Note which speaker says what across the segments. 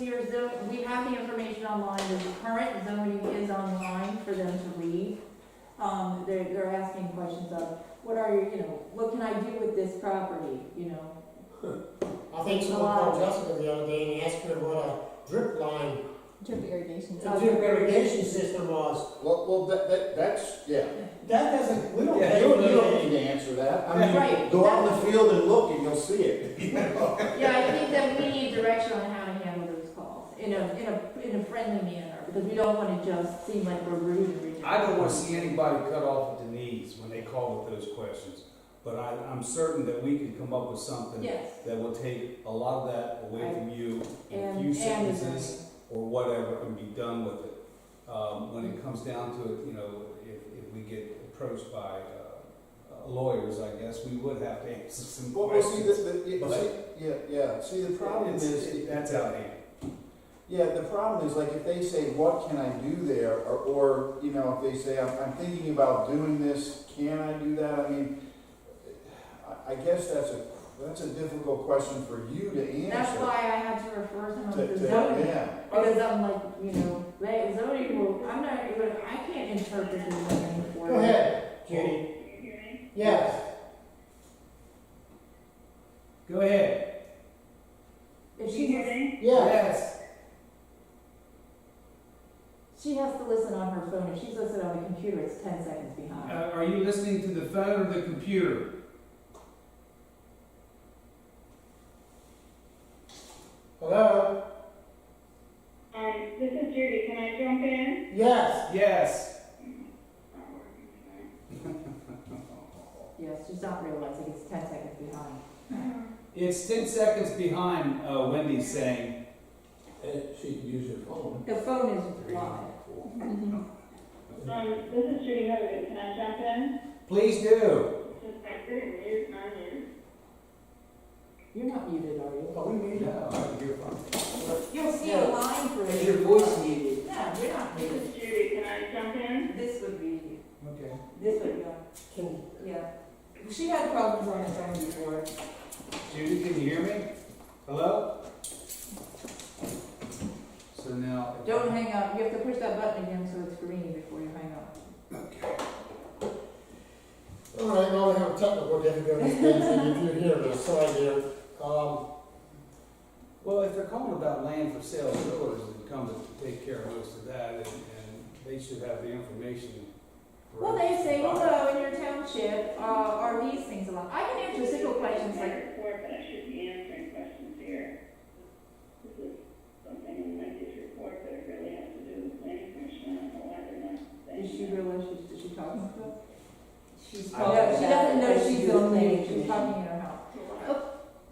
Speaker 1: Your zo- we have the information online, the current zoning is online for them to read. Um, they're, they're asking questions of, what are, your, you know, what can I do with this property, you know?
Speaker 2: I think
Speaker 1: Takes a
Speaker 2: someone
Speaker 1: while.
Speaker 2: called Jessica the other day and asked her what a drip line,
Speaker 3: Drip irrigation.
Speaker 2: a drip irrigation system was.
Speaker 4: Well, well, that, that, that's, yeah.
Speaker 2: That doesn't, we don't
Speaker 4: Yeah,
Speaker 2: pay
Speaker 4: you don't, you
Speaker 2: for
Speaker 4: don't
Speaker 2: that.
Speaker 4: need to answer that. I mean,
Speaker 1: Right.
Speaker 4: go out in the field and look and you'll see it. you know?
Speaker 1: Yeah, I think that we need direction on how to handle those calls, in a, in a, in a friendly manner, because we don't wanna just seem like we're rude and rejecting.
Speaker 5: I don't want to see anybody cut off at the knees when they call with those questions, but I, I'm certain that we can come up with something
Speaker 1: Yes.
Speaker 5: that will take a lot of that away from you in a
Speaker 1: And-
Speaker 5: few
Speaker 1: and-
Speaker 5: sentences or whatever and be done with it. Um, when it comes down to it, you know, if, if we get approached by uh, lawyers, I guess we would have to answer some
Speaker 4: Well, well, see, the,
Speaker 5: questions.
Speaker 4: the, yeah, see- yeah, yeah, see, the problem
Speaker 5: It's-
Speaker 4: is,
Speaker 5: it- that's outdated.
Speaker 4: yeah, the problem is, like, if they say, what can I do there? Or, or, you know, if they say, I'm, I'm thinking about doing this, can I do that? I mean, I, I guess that's a, that's a difficult question for you to answer.
Speaker 1: That's why I had to refer someone
Speaker 4: To-
Speaker 1: to
Speaker 4: to-
Speaker 1: zoning.
Speaker 4: Yeah.
Speaker 1: Because I'm like, you know, that zoning rule, I'm not, even- I can't interpret the zoning for
Speaker 2: Go ahead, Judy. Yes.
Speaker 5: Go ahead.
Speaker 1: If she has,
Speaker 2: Yeah.
Speaker 1: she has to listen on her phone, if she's listening on the computer, it's ten seconds
Speaker 5: Uh,
Speaker 1: behind.
Speaker 5: are you listening to the phone or the computer?
Speaker 2: Hello?
Speaker 6: Um, this is Judy, can I jump in?
Speaker 2: Yes.
Speaker 5: Yes.
Speaker 6: Not working tonight.
Speaker 1: Yes, she's not realizing it's ten seconds behind.
Speaker 6: Um,
Speaker 5: It's 10 seconds behind uh, Wendy saying,
Speaker 1: The phone is live.
Speaker 6: Um, this is Judy Hogan, can I jump in?
Speaker 5: please do.
Speaker 6: Since I couldn't mute, I'm here.
Speaker 1: You're not muted, are you?
Speaker 2: Are we meeting?
Speaker 5: No, I can hear fine.
Speaker 1: You'll see a line for it.
Speaker 2: Your voice muted.
Speaker 1: No, you're not
Speaker 6: This
Speaker 1: muted.
Speaker 6: is Judy, can I jump in?
Speaker 1: This would be,
Speaker 5: Okay.
Speaker 1: this would go,
Speaker 2: Can,
Speaker 1: yeah. She had problems on her phone before.
Speaker 5: Judy, can you hear me? Hello? So now.
Speaker 1: Don't hang up, you have to push that button again so it's green before you hang up.
Speaker 2: all right, now we have a technical difficulty, Stacy, if you hear this, sorry dear. Um,
Speaker 5: Well, if they're calling about land for sale, builders would come to take care of most of that, and, and they should have the information. for
Speaker 1: Well, they
Speaker 5: us to
Speaker 1: say,
Speaker 5: buy.
Speaker 1: hello, in your township, uh, are these things allowed? I can answer simple questions like,
Speaker 6: Report, but I should be answering questions here. This is something in Wendy's report that it really has to do with planning commission, I don't know why they're not saying.
Speaker 1: Does she realize she's, is she talking to us?
Speaker 3: She's
Speaker 5: I
Speaker 1: No,
Speaker 3: talking
Speaker 1: she
Speaker 3: about
Speaker 1: doesn't know
Speaker 3: what
Speaker 1: she's
Speaker 3: you
Speaker 1: on
Speaker 3: think.
Speaker 1: leave, she's talking in her house. Oh,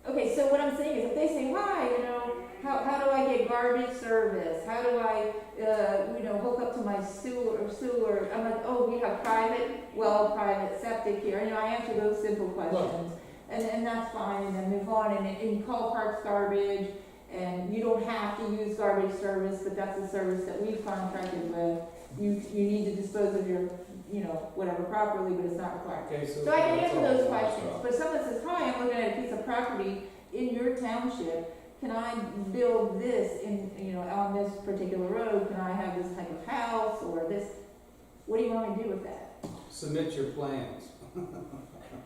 Speaker 1: Okay, so what I'm saying is if they say, hi, you know, how, how do I get garbage service? How do I, uh, you know, hook up to my sewer, or sewer? I'm like, oh, we have private well, private septic here, you know, I answer those simple questions. And, and that's fine, and then move on, and, and you call parks garbage, and you don't have to use garbage service, but that's a service that we've contracted with. You, you need to dispose of your, you know, whatever properly, but it's not required.
Speaker 5: Okay, so.
Speaker 1: So I can answer
Speaker 5: that's
Speaker 1: those
Speaker 5: all.
Speaker 1: questions, but someone says, hi, I'm looking at a piece of property in your township, can I build this in, you know, on this particular road, can I have this type of house, or this, what do you want me to do with that?
Speaker 5: Submit your plans.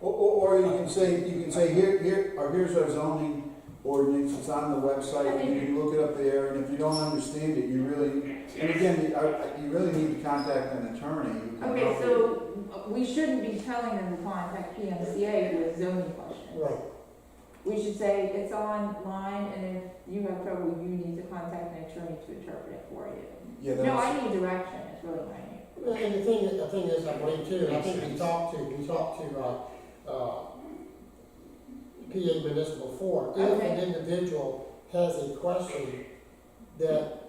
Speaker 4: Or, or, or you can say, you can say, here, here, or here's our zoning ordinance, it's on the website, you can look it up there, and if you don't understand it, you really, and again, I- I- you really need to contact an attorney. who can
Speaker 1: Okay,
Speaker 4: help you.
Speaker 1: so uh, we shouldn't be telling them to contact PMCA with zoning questions.
Speaker 2: right,
Speaker 1: We should say, it's online, and if you have trouble, you need to contact an attorey to interpret it for you.
Speaker 4: Yeah,
Speaker 1: No,
Speaker 4: that's,
Speaker 1: I need direction, it's really what I need.
Speaker 2: Well, And the thing, the thing is, I believe too, I think we talked to, we talked to, uh, uh, PA Municipal Four. If an
Speaker 1: Okay.
Speaker 2: individual has a question that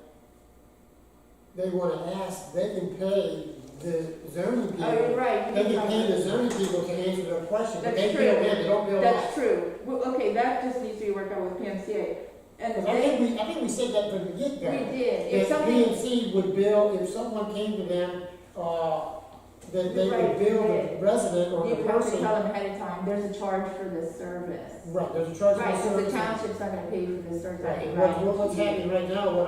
Speaker 2: they wanna ask, they can pay the zoning
Speaker 1: Oh, you're
Speaker 2: people.
Speaker 1: right. you
Speaker 2: They
Speaker 1: can
Speaker 2: can
Speaker 1: talk
Speaker 2: pay
Speaker 1: to-
Speaker 2: the zoning people to answer their question, but they
Speaker 1: That's
Speaker 2: bill
Speaker 1: true.
Speaker 2: in, they don't bill us.
Speaker 1: That's true. Well, okay, that just needs to be worked out with PMCA. And
Speaker 2: Because I
Speaker 1: they,
Speaker 2: think we, I think we said that from the
Speaker 1: we
Speaker 2: get-go.
Speaker 1: did, if
Speaker 2: If B
Speaker 1: something,
Speaker 2: and C would bill, if someone came to them, uh, that they
Speaker 1: Right,
Speaker 2: would bill the
Speaker 1: right.
Speaker 2: resident or
Speaker 1: You
Speaker 2: the
Speaker 1: have to
Speaker 2: person.
Speaker 1: tell them ahead of time, there's a charge for this service.
Speaker 2: Right, there's a charge. for
Speaker 1: Right, so the
Speaker 2: service.
Speaker 1: township's not gonna pay for this service,
Speaker 2: Right,
Speaker 1: right?
Speaker 2: what, what's happening right now, what